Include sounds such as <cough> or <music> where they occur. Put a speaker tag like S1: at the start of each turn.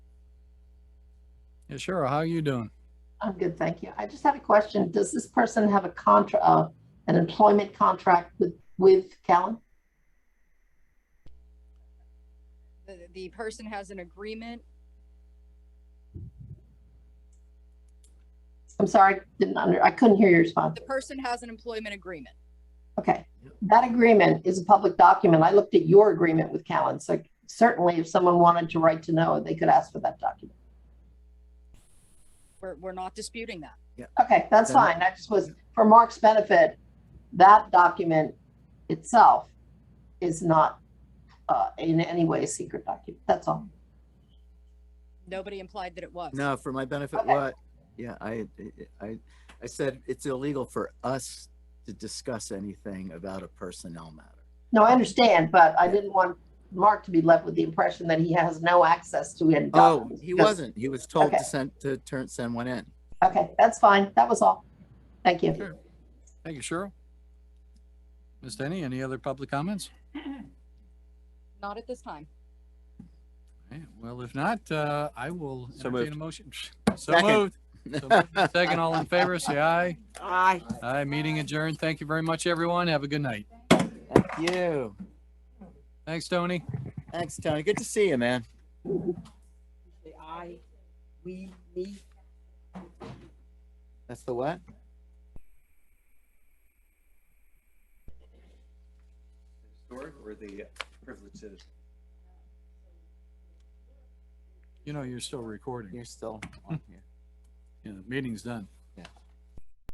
S1: Yeah, sure. How you doing?
S2: I'm good, thank you. I just had a question. Does this person have a contract, uh, an employment contract with, with Callan?
S3: The, the person has an agreement.
S2: I'm sorry, didn't under, I couldn't hear your response.
S3: The person has an employment agreement.
S2: Okay. That agreement is a public document. I looked at your agreement with Callan, so certainly if someone wanted to write to know, they could ask for that document.
S3: We're, we're not disputing that.
S2: Okay, that's fine. I just was, for Mark's benefit, that document itself is not, uh, in any way a secret document. That's all.
S3: Nobody implied that it was.
S4: No, for my benefit,
S2: Okay.
S4: what? Yeah, I, I, I said it's illegal for us to discuss anything about a personnel matter.
S2: No, I understand, but I didn't want Mark to be left with the impression that he has no access to any
S4: Oh,
S2: documents.
S4: he
S2: because-
S4: wasn't. He was told
S2: Okay.
S4: to send, to turn, send one in.
S2: Okay, that's fine. That was all. Thank you.
S1: Sure. Thank you, Cheryl. Ms. Denny, any other public comments?
S3: Not at this time.
S1: All right, Well, if not, uh, I will
S5: So
S1: entertain
S5: moved.
S1: a motion.
S5: <laughs>
S1: So
S4: Second.
S1: moved. So moved. Second, all in favor, say aye.
S5: Aye.
S1: Aye, meeting adjourned. Thank you very much, everyone. Have a good night.
S4: Thank you.
S1: Thanks, Tony.
S4: Thanks, Tony. Good to see you, man.
S5: Say aye. We, me.
S4: That's the what?
S6: historic or the privileged citizen?
S1: You know, you're still recording.
S4: You're still on here.
S1: Yeah, the meeting's done.